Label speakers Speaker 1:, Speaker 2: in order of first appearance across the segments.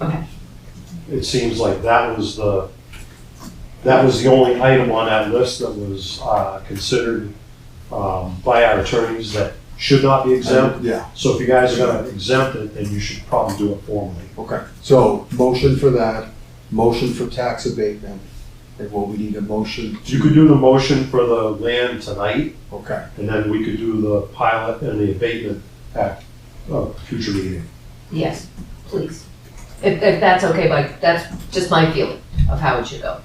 Speaker 1: Okay.
Speaker 2: It seems like that was the, that was the only item on that list that was uh, considered um, by our attorneys that should not be exempt.
Speaker 3: Yeah,
Speaker 2: So if you guys are gonna exempt it, then you should probably do it formally.
Speaker 3: okay. So motion for that, motion for tax abatement, and what we need a motion.
Speaker 2: You could do the motion for the land tonight,
Speaker 3: Okay,
Speaker 2: and then we could do the pilot and the abatement at a future meeting.
Speaker 1: Yes, please. If, if that's okay, but that's just my feeling of how it should go.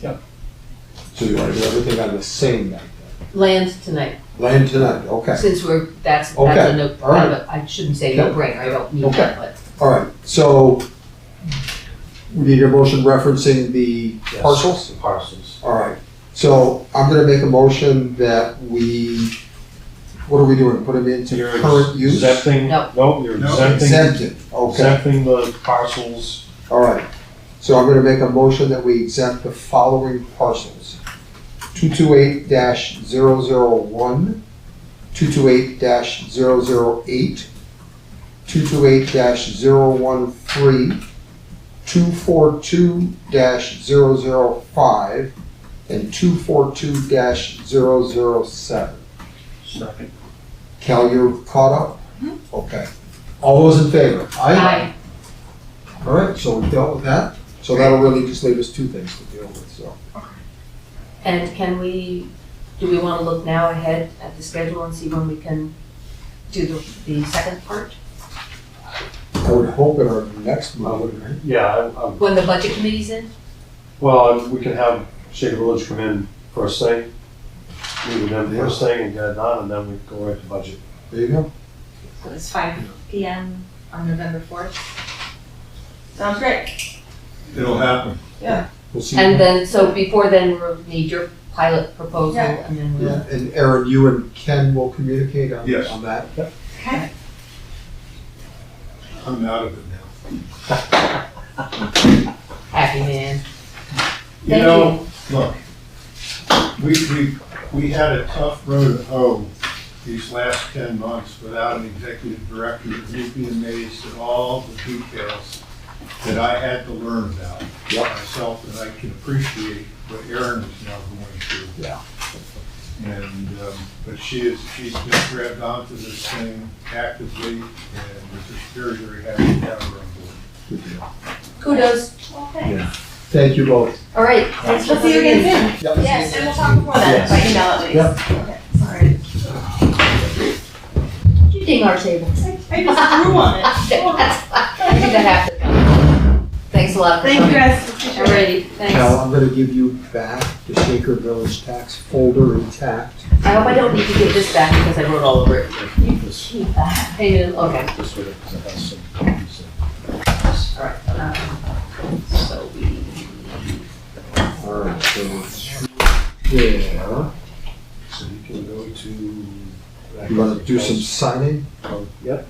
Speaker 3: so you want to do everything on the same night then?
Speaker 1: Land tonight,
Speaker 3: Land tonight, okay.
Speaker 1: since we're, that's, that's
Speaker 3: Okay,
Speaker 1: a no,
Speaker 3: all right.
Speaker 1: kind of a- I shouldn't say no brainer, I don't mean that, but.
Speaker 3: All right, so we need a motion referencing the
Speaker 2: Yes,
Speaker 3: parcels?
Speaker 2: the Parcels.
Speaker 3: All right, so I'm gonna make a motion that we, what are we doing, put them into
Speaker 2: You're
Speaker 3: current use?
Speaker 2: Exempting,
Speaker 1: No.
Speaker 2: no, you're
Speaker 4: No.
Speaker 2: exempting,
Speaker 3: Exempted, okay,
Speaker 2: exempting the parcels.
Speaker 3: all right. So I'm gonna make a motion that we exempt the following parcels. Two-two-eight dash zero-zero-one, two-two-eight dash zero-zero-eight, two-two-eight dash zero-one-three, two-four-two dash zero-zero-five, and two-four-two dash zero-zero-seven.
Speaker 2: Second.
Speaker 3: Cal, you're caught up? Okay. All those in favor?
Speaker 1: I,
Speaker 3: All right, so we dealt with that. So that'll really just leave us two things to deal with, so.
Speaker 1: and can we, do we wanna look now ahead at the schedule and see when we can do the, the second part?
Speaker 3: I would hope in our next meeting, right?
Speaker 2: Yeah, I- I'm
Speaker 1: When the budget committee's in?
Speaker 2: Well, we can have Shaker Village come in first thing, meet with them first thing and get it done, and then we go right to budget.
Speaker 3: There you go.
Speaker 5: So it's five P M on November fourth. Sounds great.
Speaker 4: It'll happen.
Speaker 3: We'll see.
Speaker 1: And then, so before then, we'll need your pilot proposal
Speaker 5: Yeah.
Speaker 1: and then we'll,
Speaker 3: Yeah, and Aaron, you and Ken will communicate on,
Speaker 4: Yes.
Speaker 3: on that.
Speaker 5: Okay.
Speaker 4: I'm out of it now.
Speaker 1: happy man.
Speaker 4: You
Speaker 1: Thank
Speaker 4: know, look, we, we, we had a tough road to hoe these last ten months without an executive director. You'd be amazed at all the details that I had to learn about
Speaker 3: Yep.
Speaker 4: myself, and I can appreciate what Erin is now going through.
Speaker 3: Yeah.
Speaker 4: And, um, but she is, she's just grabbed onto this thing actively, and we're just very, very happy to have her on board.
Speaker 3: Good deal.
Speaker 1: Kudos.
Speaker 3: Thank you both.
Speaker 1: All right,
Speaker 5: We'll
Speaker 1: thanks for
Speaker 5: see you
Speaker 1: coming in.
Speaker 5: again
Speaker 3: Yep.
Speaker 5: soon. Yes, and we'll talk before that, by email at least. Okay, Sorry.
Speaker 1: You ding our table.
Speaker 5: I just threw on it.
Speaker 1: Thanks a lot. for
Speaker 5: Thank you
Speaker 1: coming.
Speaker 5: guys. Appreciate it.
Speaker 1: Alrighty, thanks.
Speaker 3: Cal, I'm gonna give you back the Shaker Village tax folder intact.
Speaker 1: I hope I don't need to give this back because I wrote all over it. You can keep that. Hey, you- okay,
Speaker 2: This way, because I have some copies of-
Speaker 1: alright. um, So we,
Speaker 3: All right, so it's there.
Speaker 2: So you can go to.
Speaker 3: You wanna do some signing?
Speaker 2: Yep.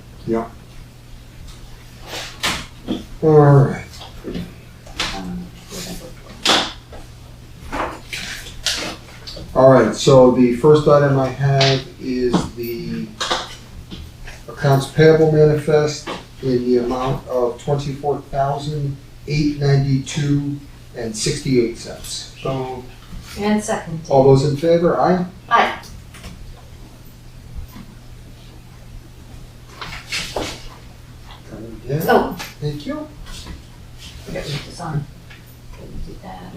Speaker 3: All right. All right, so the first item I have is the accounts payable manifest in the amount of twenty-four thousand, eight ninety-two and sixty-eight cents.
Speaker 4: So
Speaker 1: and second.
Speaker 3: All those in favor, aye?
Speaker 1: Aye.
Speaker 3: Coming down.
Speaker 1: Oh,
Speaker 3: Thank you.
Speaker 1: forgot to put this on. Did that.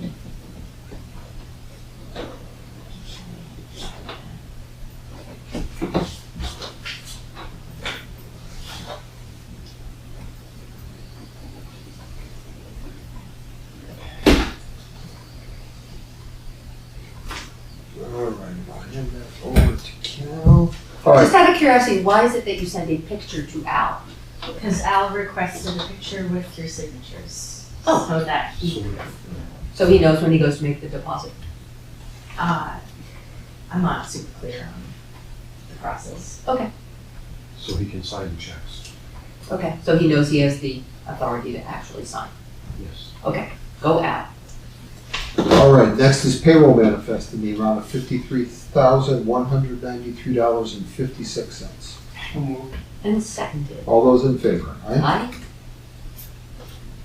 Speaker 3: All right, I'll hand that over to Cal. All right,
Speaker 1: Just out of curiosity, why is it that you send a picture to Al?
Speaker 6: Because Al requested a picture with your signatures.
Speaker 1: Oh.
Speaker 6: So that he,
Speaker 1: So he knows when he goes to make the deposit.
Speaker 6: uh, I'm not super clear on the process.
Speaker 2: So he can sign the checks,
Speaker 1: Okay. So he knows he has the authority to actually sign.
Speaker 2: yes.
Speaker 1: Go Al.
Speaker 3: All right, next is payroll manifest in the amount of fifty-three thousand, one hundred ninety-three dollars and fifty-six cents.
Speaker 1: And seconded.
Speaker 3: All those in favor, aye?
Speaker 1: Aye.